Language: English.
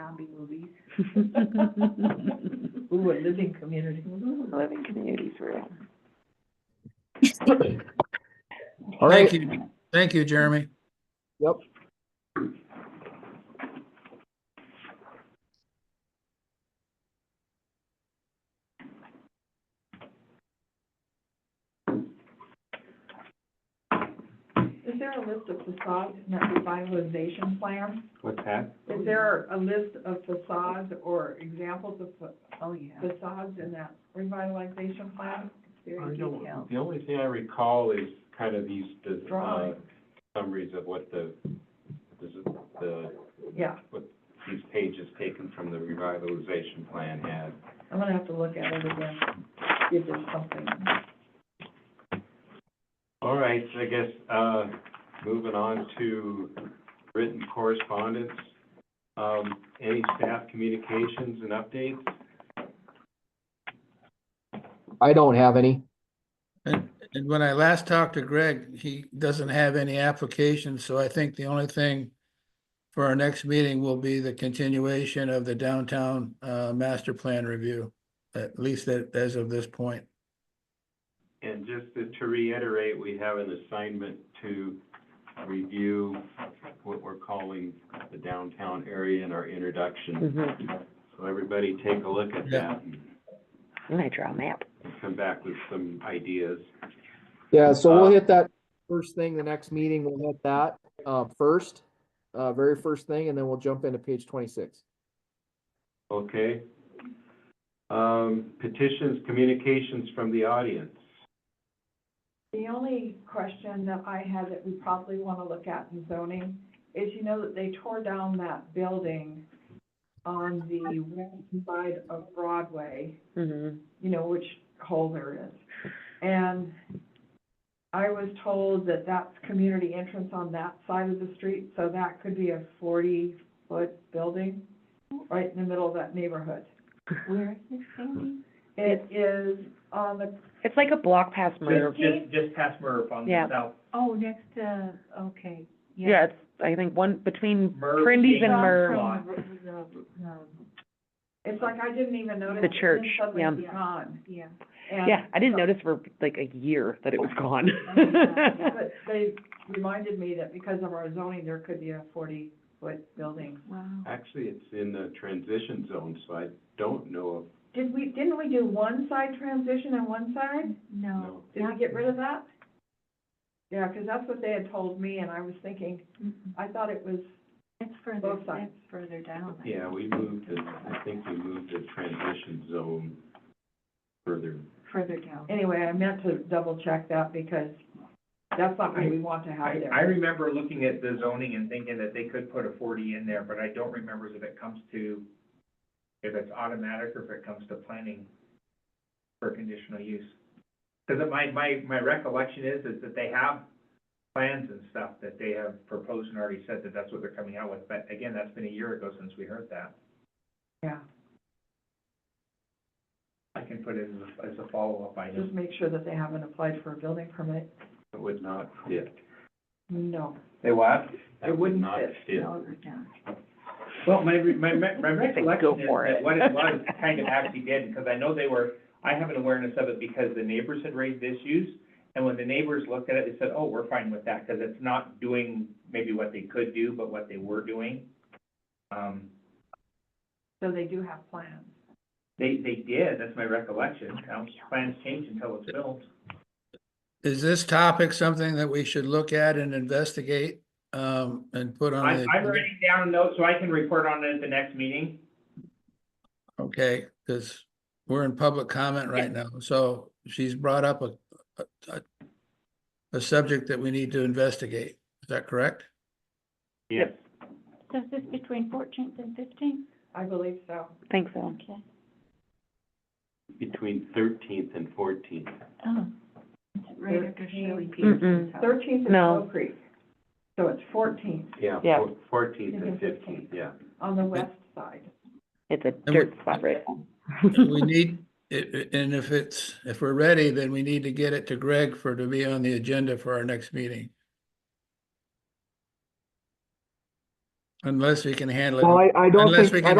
zombie movies. Ooh, a living community. Living communities, real. All Thank right, you. Thank you, Jeremy. yep. Is there a list of facades in that revitalization plan? What's that? Is there a list of facades or examples of fa- Oh, yeah. facades in that revitalization plan? Very detailed. The only thing I recall is kind of these, the, uh, Drawing. summaries of what the, this is the, Yeah, these pages taken from the revitalization plan had. I'm gonna have to look at it again, if there's something. All right, so I guess, uh, moving on to written correspondence. Um, any staff communications and updates? I don't have any. And, and when I last talked to Greg, he doesn't have any applications, so I think the only thing for our next meeting will be the continuation of the downtown, uh, master plan review, at least that, as of this point. And just to- to reiterate, we have an assignment to review what we're calling the downtown area in our introduction. Mm-hmm. So everybody take a look at that and I'm gonna draw a map. come back with some ideas. Yeah, so Uh, we'll hit that first thing, the next meeting, we'll hit that, uh, first, uh, very first thing, and then we'll jump into page twenty-six. Okay. Um, petitions, communications from the audience. The only question that I had that we probably wanna look at in zoning is, you know, that they tore down that building on the west side of Broadway. Mm-hmm. you know, which hole there is. And I was told that that's community entrance on that side of the street, so that could be a forty-foot building right in the middle of that neighborhood. Where is this thing? It is on the, It's like a block past Merv. Just, just past Merv on Yeah. the south, Oh, next to, okay, yeah. Yeah, it's, I think one, between Merv. Prindy's and Acres Merv. Lot. From the- the- the- it's like I didn't even notice. The and then church, suddenly yeah. it's gone. Yeah, And- Yeah, I didn't notice for like a year that it was gone. yeah. But they reminded me that because of our zoning, there could be a forty-foot building. wow. Actually, it's in the transition zone, so I don't know Did we, didn't we do one side transition and one side? No. Did we get rid of that? Yeah, because that's what they had told me, and I was thinking, Mm-mm. I thought it was, It's further, Both sides. it's further down. if, yeah, we moved it, I think we moved the transition zone further. Further down. anyway, I meant to double check that because that's not what we want to have I, there. I remember looking at the zoning and thinking that they could put a forty in there, but I don't remember if it comes to, if it's automatic or if it comes to planning for conditional use. Because my, my, my recollection is, is that they have plans and stuff that they have proposed and already said that that's what they're coming out with. But again, that's been a year ago since we heard that. Yeah, I can put it as a, as a follow-up item. just make sure that they haven't applied for a building permit. It would not fit. No. They what? It would not fit. Further down. Well, my, re- my, my my Say go recollection is for it. that what it was kind of actually did, because I know they were, I have an awareness of it because the neighbors had raised issues. And when the neighbors looked at it, they said, oh, we're fine with that, because it's not doing maybe what they could do, but what they were doing. Um, So they do have plans. they, they did, that's my recollection. Now, plans change until it's built. Is this topic something that we should look at and investigate, um, and put on I'm, the? I'm writing down notes so I can report on it at the next meeting. Okay, because we're in public comment right now, so she's brought up a, a- a, a subject that we need to investigate. Is that correct? Yes. So is this between fourteenth and fifteenth? I believe so. Think so. Okay. Between thirteenth and fourteenth. Oh. Is it right after Shirley Thirteen. Peterson's Mm-mm. house? Thirteenth is No. Mill Creek. So it's fourteenth Yeah, Yeah. fourteenth and and fifteenth, yeah. on the west side. It's a we- dirt spot right now. We need, it- it- and if it's, if we're ready, then we need to get it to Greg for, to be on the agenda for our next meeting. Unless we can handle it. Well, I, I don't Unless think, we I can don't